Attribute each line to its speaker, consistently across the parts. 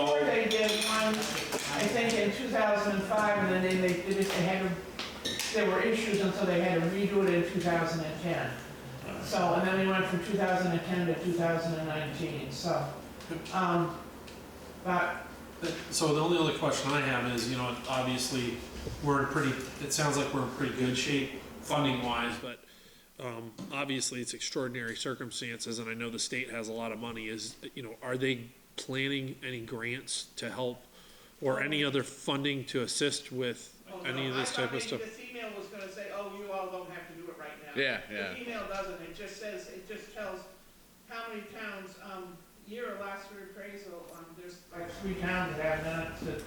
Speaker 1: did one, I think in 2005, and then they, they did it, they had, to- there were issues, and so they had to redo it in 2010. So, and then we went from 2010 to 2019, so, um, but,
Speaker 2: So the only other question I have is, you know, obviously, we're in pretty, it sounds like we're in pretty good shape funding wise, but um, obviously it's extraordinary circumstances and I know the state has a lot of money is, you know, are they planning any grants to help or any other funding to assist with
Speaker 1: oh, no,
Speaker 2: any of
Speaker 1: I
Speaker 2: this
Speaker 1: thought
Speaker 2: type of
Speaker 1: maybe
Speaker 2: stuff?
Speaker 1: this email was gonna say, oh, you all don't have to do it right now.
Speaker 3: Yeah, yeah.
Speaker 1: The email doesn't, it just says, it just tells how many towns, um, year or last year appraisal, um, there's like three towns that have done it, that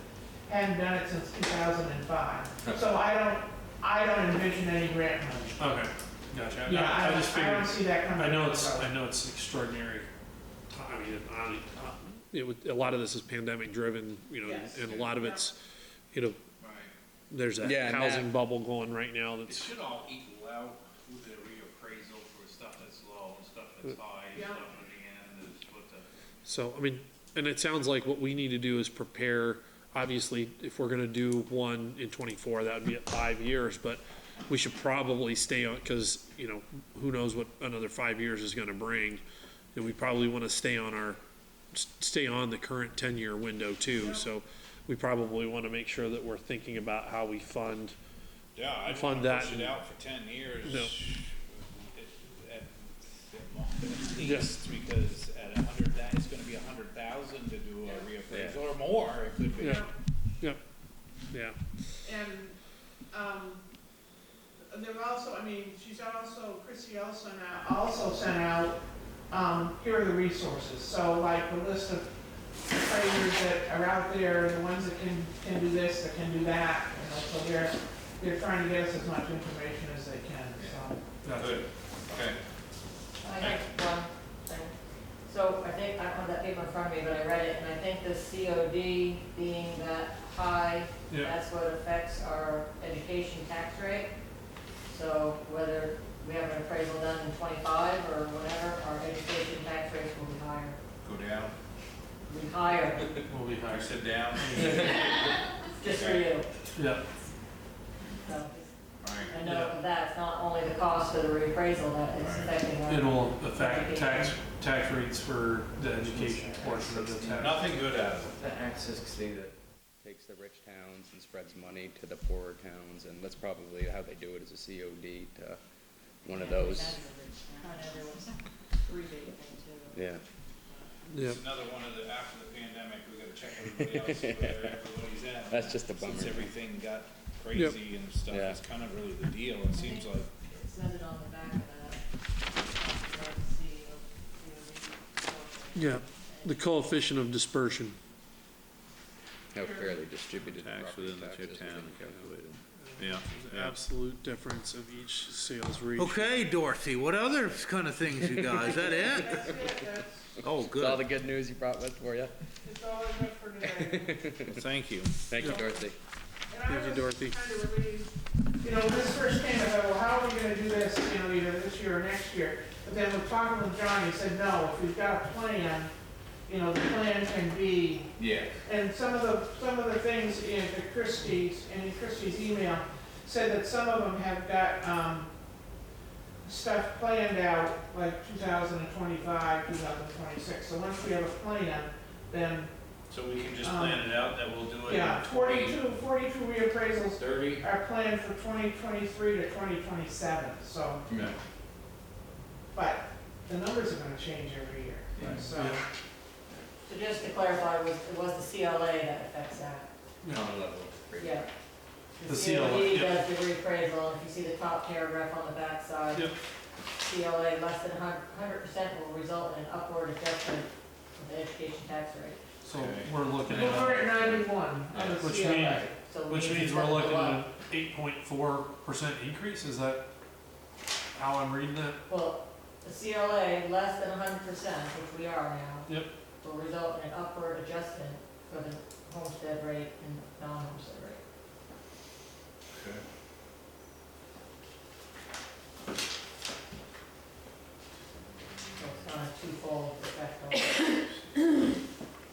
Speaker 1: hadn't done it since two thousand and five. So I don't, I don't envision any grant money.
Speaker 2: Okay, gotcha. I-
Speaker 1: Yeah, I
Speaker 2: I just
Speaker 1: don't, I
Speaker 2: figured,
Speaker 1: don't see that coming.
Speaker 2: I know it's,
Speaker 1: So-
Speaker 2: I know it's extraordinary. I mean, I, I- it would, a lot of this is pandemic driven, you know,
Speaker 1: Yes.
Speaker 2: and a lot of it's, you know,
Speaker 4: Right.
Speaker 2: there's
Speaker 3: Yeah,
Speaker 2: a
Speaker 3: and
Speaker 2: housing
Speaker 3: that-
Speaker 2: bubble going right now
Speaker 4: It
Speaker 2: that's,
Speaker 4: should all equal out with the reappraisal for stuff that's low and stuff that's
Speaker 2: Mm.
Speaker 4: high and
Speaker 1: Yeah.
Speaker 4: stuff at the end is what the,
Speaker 2: so, I mean, and it sounds like what we need to do is prepare, obviously, if we're gonna do one in twenty-four, that would be at five years, but we should probably stay on, cause, you know, who knows what another five years is gonna bring, and we probably wanna stay on our, s- stay on the current ten-year window too, so we probably wanna make sure that we're thinking about how we fund,
Speaker 5: Yeah, I'd
Speaker 2: Fund
Speaker 5: fund to push
Speaker 2: that
Speaker 5: it
Speaker 2: and-
Speaker 5: out for ten years.
Speaker 2: No.
Speaker 5: at- at- At least, because at a hundred, that is gonna be a hundred thousand to do a reappraisal, or more, it could be.
Speaker 2: Yeah. yep, yeah.
Speaker 1: And, um, they're also, I mean, she's also, Chrissy also now, also sent out, um, here are the resources. So like the list of trainers that are out there, the ones that can, can do this, that can do that, you know, so they're, they're trying to get us as much information as they can, so.
Speaker 4: good, okay.
Speaker 6: I have one thing. So I think, I don't have that paper in front of me, but I read it, and I think the COD being that high,
Speaker 2: Yeah.
Speaker 6: that's what affects our education tax rate. So whether we have an appraisal done in twenty-five or whatever, our education tax rates will be higher,
Speaker 4: Go down,
Speaker 6: will be higher,
Speaker 2: We'll be
Speaker 4: I
Speaker 2: high.
Speaker 4: said down,
Speaker 6: just for you.
Speaker 2: Yeah,
Speaker 6: So
Speaker 4: alright,
Speaker 6: I know that's not only the cost of the reappraisal that is affecting our.
Speaker 2: it'll affect tax, tax rates for the education portion of the tax.
Speaker 4: nothing good out of it.
Speaker 3: The Access City that takes the rich towns and spreads money to the poorer towns, and that's probably how they do it, is a COD to one of those.
Speaker 6: On everyone's rebate thing too.
Speaker 3: Yeah.
Speaker 2: Yeah,
Speaker 5: It's another one of the, after the pandemic, we gotta check everybody else, where everybody's at.
Speaker 3: That's just a bummer.
Speaker 5: Since everything got crazy and stuff,
Speaker 3: Yeah.
Speaker 5: it's kind of really the deal, it seems like.
Speaker 6: It says it on the back of that. Regard to see, uh, you know, the corporate.
Speaker 2: yeah, the coefficient of dispersion.
Speaker 3: How fairly distributed
Speaker 5: Tax
Speaker 3: property
Speaker 5: within the
Speaker 3: taxes
Speaker 5: town.
Speaker 3: within Calhoun.
Speaker 5: Yeah.
Speaker 2: Absolute difference of each sales region.
Speaker 7: Okay, Dorothy, what other kind of things you got? Is that it?
Speaker 1: That's it, that's,
Speaker 7: Oh,
Speaker 3: That's all the
Speaker 7: good.
Speaker 3: good news you brought with for you.
Speaker 1: that's all I've got for today.
Speaker 5: Thank you.
Speaker 3: Thank you,
Speaker 2: Yeah.
Speaker 3: Dorothy.
Speaker 1: And
Speaker 2: Thank
Speaker 1: I
Speaker 2: you,
Speaker 1: was
Speaker 2: Dorothy.
Speaker 1: kind of relieved, you know, when this first came, I thought, well, how are we gonna do this, you know, either this year or next year? But then with talking with John, he said, no, if we've got a plan, you know, the plan can be,
Speaker 4: Yeah.
Speaker 1: and some of the, some of the things in the Christie's, in Christie's email, said that some of them have got, um, stuff planned out, like two thousand and twenty-five, two thousand and twenty-six, so once we have a plan, then,
Speaker 4: So we can just
Speaker 1: Um,
Speaker 4: plan it out that we'll do
Speaker 5: Oh,
Speaker 4: it
Speaker 1: yeah,
Speaker 4: in twenty,
Speaker 1: forty-two, forty-two reappraisals
Speaker 4: thirty?
Speaker 1: our plan for 2023 to 2027, so,
Speaker 4: No.
Speaker 1: but the numbers are gonna change every year,
Speaker 4: Right.
Speaker 1: so.
Speaker 6: So just to clarify, it was, it was the CLA that affects that,
Speaker 3: On level.
Speaker 6: yeah.
Speaker 2: The CLA,
Speaker 6: COD
Speaker 2: yeah.
Speaker 6: does the reappraisal, and if you see the top paragraph on the backside.
Speaker 2: Yep.
Speaker 6: CLA less than hundred percent will result in an upward adjustment of the education tax rate.
Speaker 2: So we're looking
Speaker 1: We're
Speaker 2: at,
Speaker 1: at 91 on the
Speaker 2: Which
Speaker 1: CLA.
Speaker 2: means-
Speaker 6: So we
Speaker 2: which
Speaker 6: need to
Speaker 2: means we're
Speaker 6: set
Speaker 2: looking
Speaker 6: the
Speaker 2: at an
Speaker 6: law.
Speaker 2: eight point four percent increase, is that how I'm reading that?
Speaker 6: Well, the CLA less than hundred percent, which we are now.
Speaker 2: Yep.
Speaker 6: Will result in an upward adjustment for the homestead rate and non-homestead rate.
Speaker 4: Okay.